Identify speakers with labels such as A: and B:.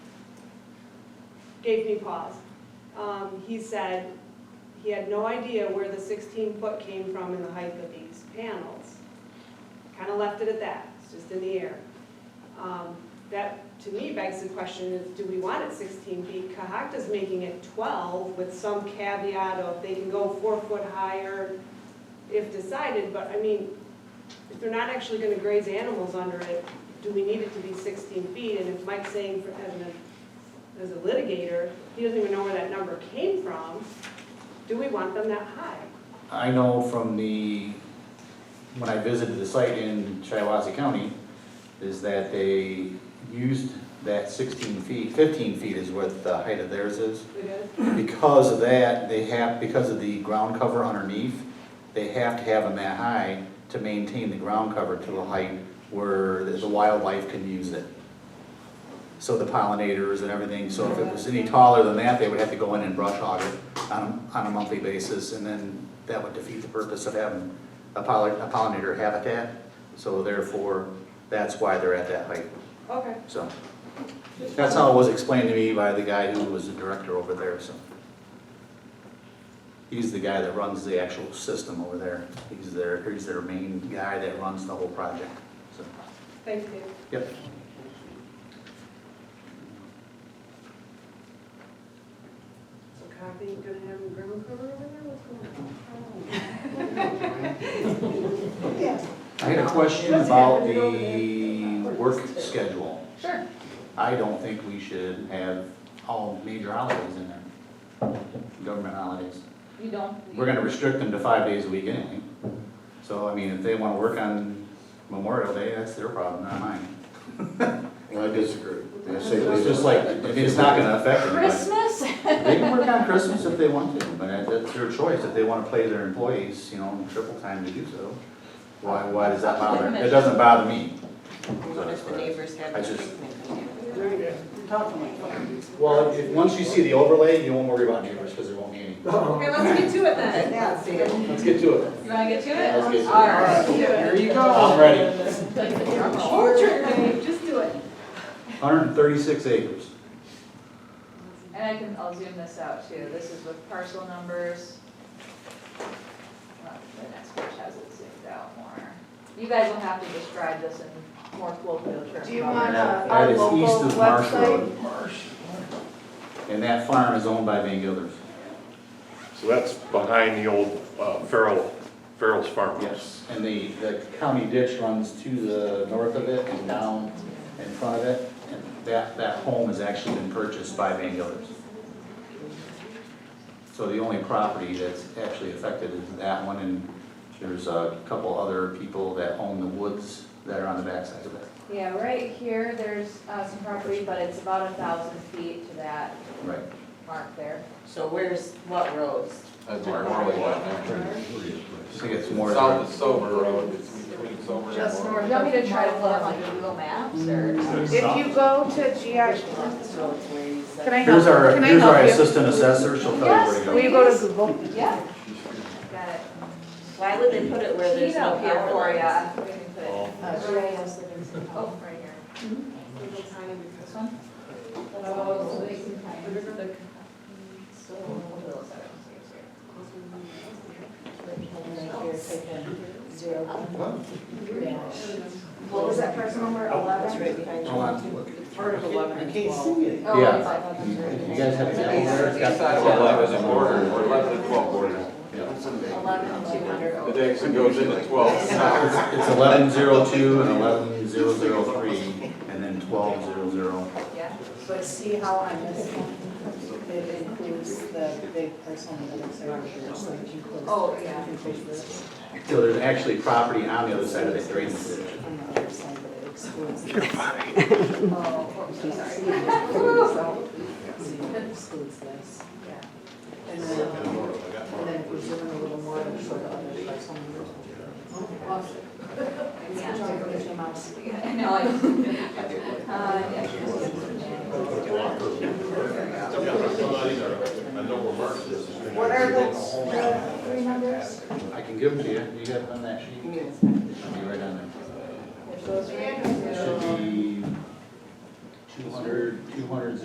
A: gave me pause. Um, He said he had no idea where the 16-foot came from in the height of these panels. Kind of left it at that, it's just in the air. Um, That, to me, begs the question is, do we want it 16 feet? Cahockta's making it 12 with some caveat of they can go four foot higher if decided, but I mean, if they're not actually gonna graze animals under it, do we need it to be 16 feet? And if Mike's saying, for- as an as a litigator, he doesn't even know where that number came from, do we want them that high?
B: I know from the, when I visited the site in Shiawassee County, is that they used that sixteen feet, fifteen feet is what the height of theirs is.
A: It is,
B: Because of that, they have, because of the ground cover underneath, they have to have them that high to maintain the ground cover to the height where the wildlife can use it. So the pollinators and everything, so if it was any taller than that, they would have to go in and brush hog it on, a- on a monthly basis, and then that would defeat the purpose of having a pollin- a pollinator habitat. So therefore, that's why they're at that height,
A: okay.
B: so. That's how it was explained to me by the guy who was the director over there, so. He's the guy that runs the actual system over there. He's their, he's their main guy that runs the whole project, so,
A: Thanks, Dave.
B: yep.
A: So Kathy, you gonna have a ground cover over there, what's going
C: Yes.
B: I had a question
C: What's
B: about
C: happening over
B: the
C: there?
B: work schedule.
C: Sure.
B: I don't think we should have all major holidays in there, government holidays.
C: You don't?
B: We're gonna restrict them to five days a week anyway. So, I mean, if they wanna work on Memorial Day, that's their problem, not mine.
D: I disagree. I say
B: It's
D: leave
B: just
D: it.
B: like, I mean, it's not gonna affect anybody.
C: Christmas?
B: They can work on Christmas if they want to, but that- that's their choice. If they wanna play their employees, you know, triple time to do so. Why, why does that bother? It doesn't bother me.
E: What if the neighbors have
B: I
E: a
B: just-
E: picnic?
B: Well, if, once you see the overlay, you won't worry about neighbors, because there won't be any.
C: Okay, let's get to it then.
E: Yeah, see, I'm
B: Let's get to it.
C: You wanna get to it?
B: Let's get to it.
C: All right.
E: Here you go.
B: I'm ready.
C: Orchard, babe, just do it.
B: Hundred and thirty-six acres.
C: And I can, I'll zoom this out too. This is with parcel numbers. Well, The next page has it zoomed out more. You guys will have to describe this in more colloquial terms.
F: Do you
C: about
F: want
C: it.
F: uh,
B: That
F: our
B: is
F: local
B: east of Marsh
F: website?
B: Road. And that farm is owned by Van Gilders.
G: So that's behind the old uh, Farrell, Farrell's farmhouse.
B: Yes, and the, the county ditch runs to the north of it and down in front of it. And that, that home has actually been purchased by Van Gilders. So the only property that's actually affected is that one, and there's a couple other people that own the woods that are on the backside of it.
C: Yeah, right here, there's uh, some property, but it's about a thousand feet to that
B: Right.
C: mark there.
E: So where's, what roads?
H: That's where Morley went.
B: I think it's more.
H: South of Silver Road, it's between Silver and
F: Just
H: Morley.
C: Do
F: north
C: you want me to
F: of
C: try to pull up
F: Marlboro.
C: like Google Maps or?
F: If you go to
E: Which
F: GI,
E: ones, roads where you said-
F: can I help,
B: Here's our,
F: can I
B: here's our
F: help you?
B: assistant assessor, she'll tell you where to go.
F: Will you go to Google?
C: Yeah. Got it.
E: Why would they put it where there's no
C: here
E: power
C: for
E: lines?
C: ya. We can put it-
G: Oh.
E: Uh,
C: Oh, right here. This
A: Oh,
C: one?
E: So, what else? Right here, taken zero.
F: What was that person number,
E: That's
F: eleven?
E: right behind
B: Hold on.
E: you. Part of eleven as well.
C: Oh,
B: Yeah.
C: it's like on the-
B: You guys have a sample
H: Yeah,
B: there?
H: it's got that Eleven and border, or eleven and twelve border.
C: Eleven, two
H: It
C: hundred. Oh,
H: actually goes into twelve south.
B: It's eleven zero two and eleven zero zero three, and then twelve zero zero.
C: Yeah.
E: But see how on this one, it includes the big personal limits that are here, so it includes.
C: Oh, yeah.
B: So there's actually property on the other side of the drainage ditch.
E: On the other side, but it excludes. You're fine.
C: Oh, oops, I'm sorry.
E: It excludes this.
C: Yeah.
E: And then, and then if we zoom in a little more, it'll show the other personal limits.
C: Yeah.
E: mouse.
C: I know, I. Uh, yeah, here's-
F: What are the, the three numbers?
B: I can give them to you, you got them on that sheet? It should be right on
C: Those right here.
B: there. It should be two hundred, two hundred